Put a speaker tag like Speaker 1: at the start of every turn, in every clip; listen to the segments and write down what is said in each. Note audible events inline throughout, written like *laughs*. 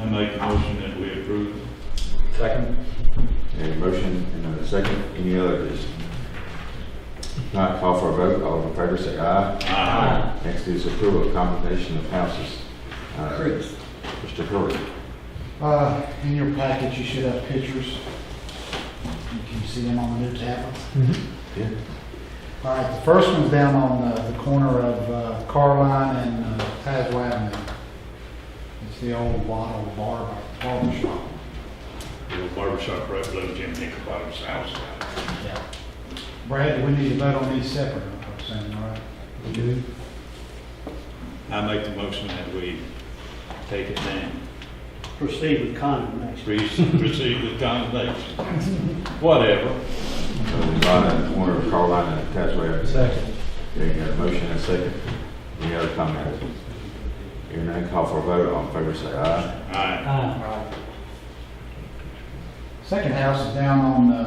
Speaker 1: I make a motion that we approve.
Speaker 2: Second.
Speaker 3: A motion and a second, any other discussion? Not call for a vote, all in favor say aye.
Speaker 1: Aye.
Speaker 3: Next is approval of combination of houses. Uh,
Speaker 2: Chris.
Speaker 3: Mr. Curry.
Speaker 4: Uh, in your package, you should have pictures. You Can see them on the new tablets?
Speaker 3: Yeah.
Speaker 4: All right, the first one's down on uh, the corner of uh, Carline and uh, Tazewell Avenue. It's the old bottle bar, barber shop.
Speaker 1: The barbershop right below Jim Nickerbottom's house.
Speaker 4: Yeah. Brad, we need to vote on these separate, I'm saying, all right?
Speaker 1: I make the motion that we take it down.
Speaker 5: proceed with condemnation.
Speaker 1: Re- Proceed with condemnation. Whatever.
Speaker 3: So the lot at the corner of Carolina and Tazewell.
Speaker 2: Second.
Speaker 3: There you go, motion and a second, any other comments? Hearing none, call for a vote, all in favor say aye.
Speaker 1: Aye.
Speaker 4: Second house is down on uh,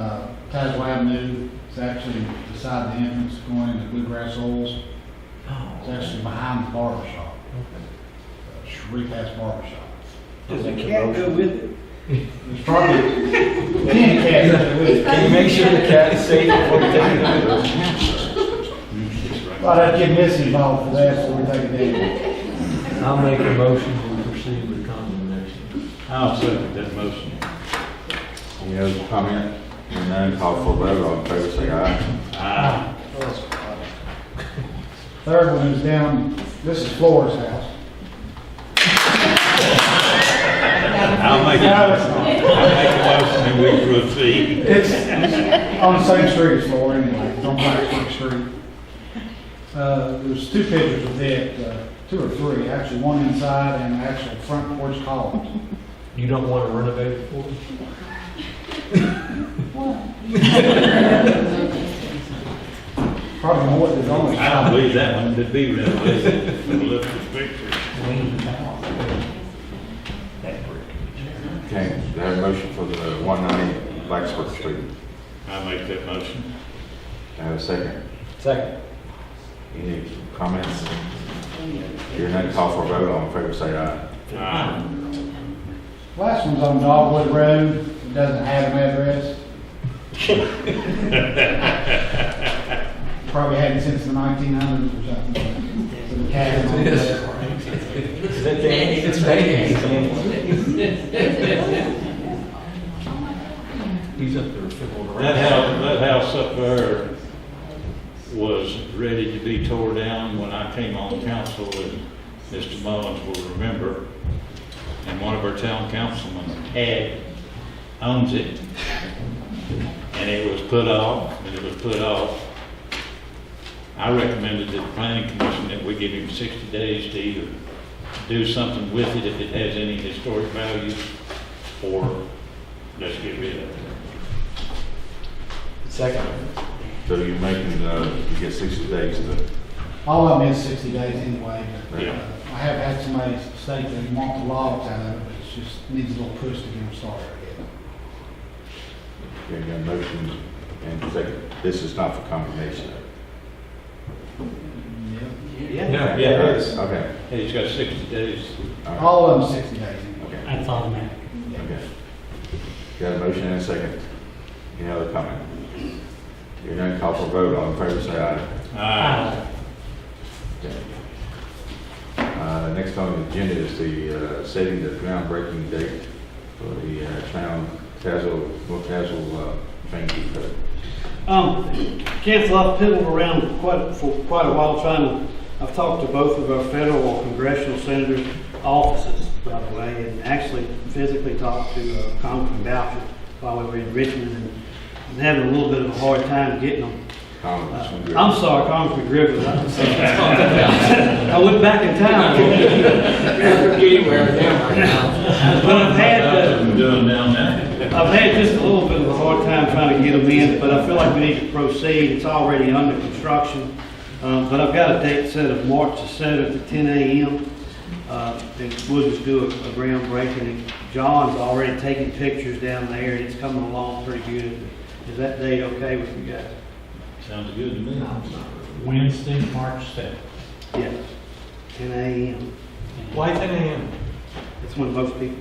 Speaker 4: Tazewell Avenue. It's actually beside the entrance going into Bluegrass Oils. It's actually behind the barber shop. Sharif has barber shop.
Speaker 5: Does the cat go with it?
Speaker 4: It's probably, *laughs* ten cats with it.
Speaker 2: Can you make sure the cat is safe before you take it out?
Speaker 1: It's right.
Speaker 4: Thought I'd get Missy involved for that before we take it down.
Speaker 2: I'll make a motion to proceed with condemnation.
Speaker 1: I'll second that motion.
Speaker 3: Any other comment? Hearing none, call for a vote, all in favor say aye.
Speaker 1: Aye.
Speaker 4: Third one is down, this is Flora's house.
Speaker 1: I'll make a motion. I'll make a motion that we proceed.
Speaker 4: It's on the same street as Laura anyway, it's on Blacksburg Street. Uh, there's two pictures of it, uh, two or three, actually, one inside and actual front porch columns.
Speaker 2: You don't want to renovate it for us?
Speaker 4: Probably more than always.
Speaker 1: I don't believe that one to be renovated from the look of the picture.
Speaker 3: Okay, do I have a motion for the one ninety Blacksburg Street?
Speaker 1: I make that motion.
Speaker 3: Do I have a second?
Speaker 2: Second.
Speaker 3: Any comments? Hearing none, call for a vote, all in favor say aye.
Speaker 1: Aye.
Speaker 4: Last one's on Dogwood Road, it doesn't have an
Speaker 1: *laughs*
Speaker 4: address. Probably hadn't since the nineteen hundreds or something. So the cat is on the left.
Speaker 2: Is that Danny? It's Danny. He's up there fiddling around.
Speaker 1: That house, that house up there was ready to be tore down when I came on council, and Mr. Mullins will remember. And one of our town councilmen had, owns it. And it was put off, and it was put off. I recommended to the planning commission that we give him sixty days to either do something with it if it has any historic value, or just get rid of it.
Speaker 2: Second.
Speaker 3: So you're making, uh, you get sixty days to,
Speaker 4: All of them is sixty days anyway, but uh,
Speaker 1: Yeah.
Speaker 4: I have had somebody state they want the logs out of it, but it just needs a little push to get them started again.
Speaker 3: there you go, motion and second. This is not for condemnation.
Speaker 5: Yeah.
Speaker 2: Yeah.
Speaker 1: Yeah, it is.
Speaker 3: Okay.
Speaker 1: Hey, he's got sixty days.
Speaker 3: all right,
Speaker 4: All of them sixty days anyway.
Speaker 3: Okay.
Speaker 5: That's automatic.
Speaker 3: Okay. Got a motion and a second. Any other comment? Hearing none, call for a vote, all in favor say aye.
Speaker 1: Aye.
Speaker 3: Okay. Uh, next on the agenda is the, uh, setting the groundbreaking date for the, uh, town Tazewell, North Tazewell, uh, train depot.
Speaker 5: Um, council, I've piddled around quite, for quite a while trying to, I've talked to both of our federal congressional senators' offices, by the way, and actually physically talked to uh, Congressman Boucher while we were in Richmond and I'm having a little bit of a hard time getting them.
Speaker 3: Comments?
Speaker 5: Uh, I'm sorry, Congressman Griffin, I'm sorry. *laughs* I went back in time. But I've had, uh,
Speaker 1: That's what we're doing down there.
Speaker 5: I've had just a little bit of a hard time trying to get them in, but I feel like we need to proceed. It's already under construction. Um, But I've got a date set of March the seventh at ten AM. Uh, And we'll just do a a groundbreaking. And John's already taking pictures down there, and it's coming along pretty good. Is that date okay with you guys?
Speaker 1: Sounds good to me.
Speaker 6: Wednesday, March 7th.
Speaker 5: Yeah. Ten AM.
Speaker 2: Why ten AM?
Speaker 5: That's when most people